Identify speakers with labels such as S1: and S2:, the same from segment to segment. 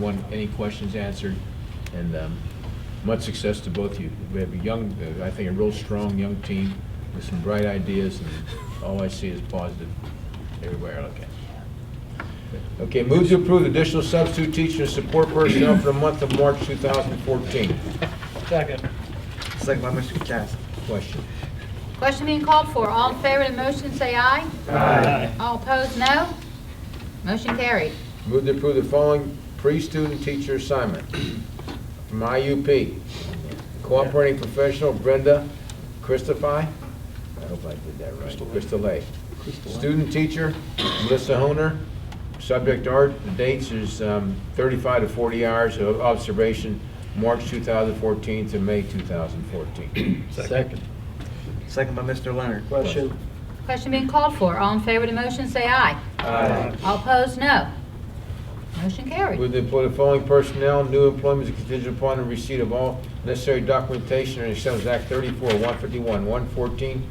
S1: One, any questions answered, and um, much success to both of you. We have a young, uh, I think, a real strong young team with some bright ideas, and all I see is positive everywhere I look at. Okay, move to approve additional substitute teacher support personnel for the month of March 2014.
S2: Second.
S3: Second by Mr. Katsas.
S1: Question?
S4: Question being called for. All in favor of the motion, say aye.
S2: Aye.
S4: All opposed, no. Motion carried.
S1: Move to approve the following pre-student teacher assignment from IUP. Cooperating professional Brenda Christophi, I hope I did that right, Christolay. Student teacher Melissa Honer. Subject art, the dates is um, 35 to 40 hours of observation, March 2014 to May 2014.
S2: Second.
S3: Second by Mr. Leonard.
S2: Question.
S4: Question being called for. All in favor of the motion, say aye.
S1: Aye.
S4: All opposed, no. Motion carried.
S1: Move to employ the following personnel, new employment is contingent upon the receipt of all necessary documentation and acceptance of Act 34, 151, 114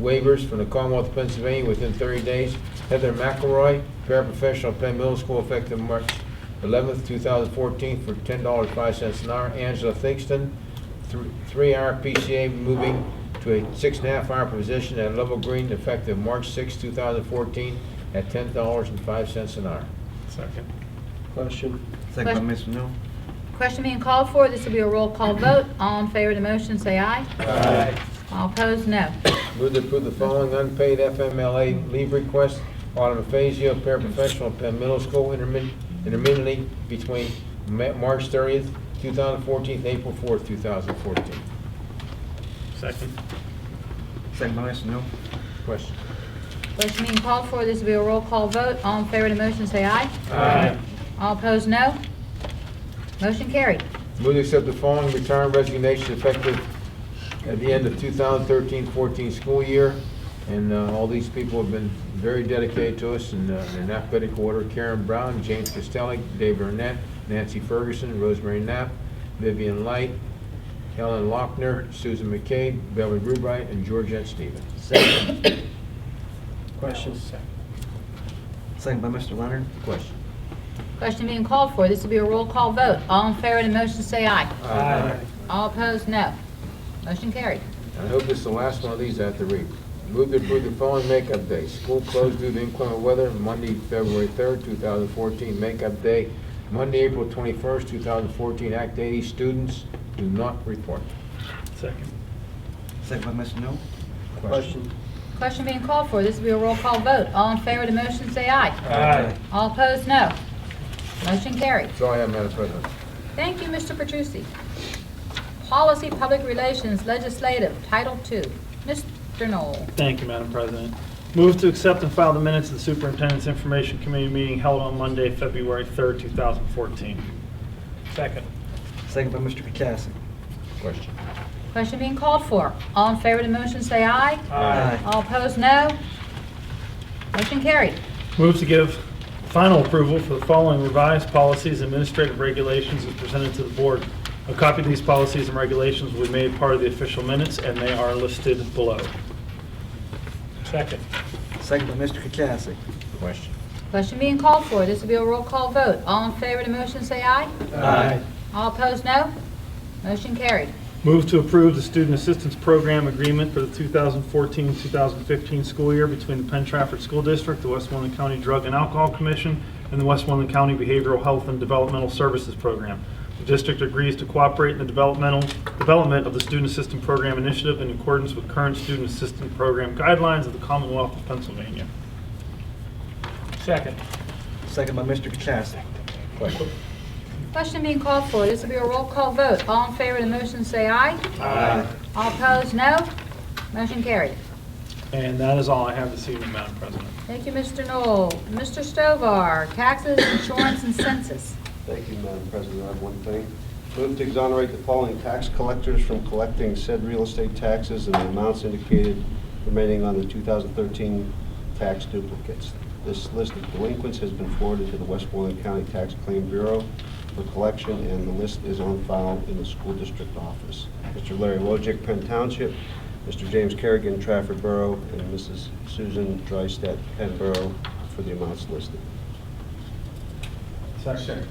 S1: waivers from the Commonwealth of Pennsylvania within 30 days. Heather McElroy, paraprofessional at Penn Middle School, effective March 11th, 2014, for $10.05 an hour. Angela Thingston, thr- three-hour PCA, moving to a six-and-a-half-hour position at Level Green, effective March 6, 2014, at $10.05 an hour.
S2: Question.
S3: Second by Mr.
S4: Question.
S3: Newell.
S4: Question being called for. This will be a roll call vote. All in favor of the motion, say aye.
S2: Aye.
S4: All opposed, no.
S1: Move to approve the following unpaid FMLA leave request. Autumn Fazio, paraprofessional at Penn Middle School, intermin- intermittently between Ma- March 30th, 2014, April 4th, 2014.
S2: Second.
S3: Second by Mr. Newell.
S1: Question?
S4: Question being called for. This will be a roll call vote. All in favor of the motion, say aye.
S2: Aye.
S4: All opposed, no. Motion carried.
S1: Move to accept the following retirement resignation effective at the end of 2013-14 school year. And uh, all these people have been very dedicated to us and uh, in alphabetical order. Karen Brown, James Costelli, Dave Burnett, Nancy Ferguson, Rosemary Knapp, Vivian Light, Helen Lochner, Susan McCabe, Beverly Rubright, and Georgette Stevens.
S2: Question.
S3: Second by Mr. Leonard.
S1: Question?
S4: Question being called for. This will be a roll call vote. All in favor of the motion, say aye.
S2: Aye.
S4: All opposed, no. Motion carried.
S1: I hope this is the last one of these I have to read. Move to approve the following makeup day. School closed due to inclement weather, Monday, February 3rd, 2014. Makeup day, Monday, April 21st, 2014. Act 80, students do not report.
S2: Second.
S3: Second by Mr. Newell.
S2: Question.
S4: Question being called for. This will be a roll call vote. All in favor of the motion, say aye.
S2: Aye.
S4: All opposed, no. Motion carried.
S1: That's all I have, Madam President.
S4: Thank you, Mr. Petrucci. Policy, Public Relations, Legislative, Title II. Mr. Knoll.
S5: Thank you, Madam President. Move to accept and file the minutes of the Superintendent's Information Committee meeting held on Monday, February 3rd, 2014.
S2: Second.
S3: Second by Mr. Katsas.
S1: Question.
S4: Question being called for. All in favor of the motion, say aye.
S3: Aye.
S4: All opposed, no. Motion carried.
S5: Move to give final approval for the following revised policies and administrative regulations as presented to the board. A copy of these policies and regulations will be made part of the official minutes, and they are listed below.
S2: Second.
S3: Second by Mr. Katsas.
S1: Question.
S4: Question being called for. This will be a roll call vote. All in favor of the motion, say aye.
S2: Aye.
S4: All opposed, no. Motion carried.
S5: Move to approve the Student Assistance Program Agreement for the 2014-2015 school year between the Penn Trafford School District, the Westmoreland County Drug and Alcohol Commission, and the Westmoreland County Behavioral Health and Developmental Services Program. The district agrees to cooperate in the developmental, development of the Student Assistance Program Initiative in accordance with current Student Assistance Program guidelines of the Commonwealth of Pennsylvania.
S2: Second.
S3: Second by Mr. Katsas.
S1: Question.
S4: Question being called for. This will be a roll call vote. All in favor of the motion, say aye.
S2: Aye.
S4: All opposed, no. Motion carried.
S5: And that is all I have this evening, Madam President.
S4: Thank you, Mr. Knoll. Mr. Stovall, taxes, insurance, and census.
S6: Thank you, Madam President. I have one thing. Move to exonerate the following tax collectors from collecting said real estate taxes and the amounts indicated remaining on the 2013 tax duplicates. This list of delinquents has been forwarded to the Westmoreland County Tax Claim Bureau for collection, and the list is on file in the school district office. Mr. Larry Wojcik, Penn Township, Mr. James Kerrigan, Trafford Borough, and Mrs. Susan Drystat, Penn Borough, for the amounts listed.
S5: Second.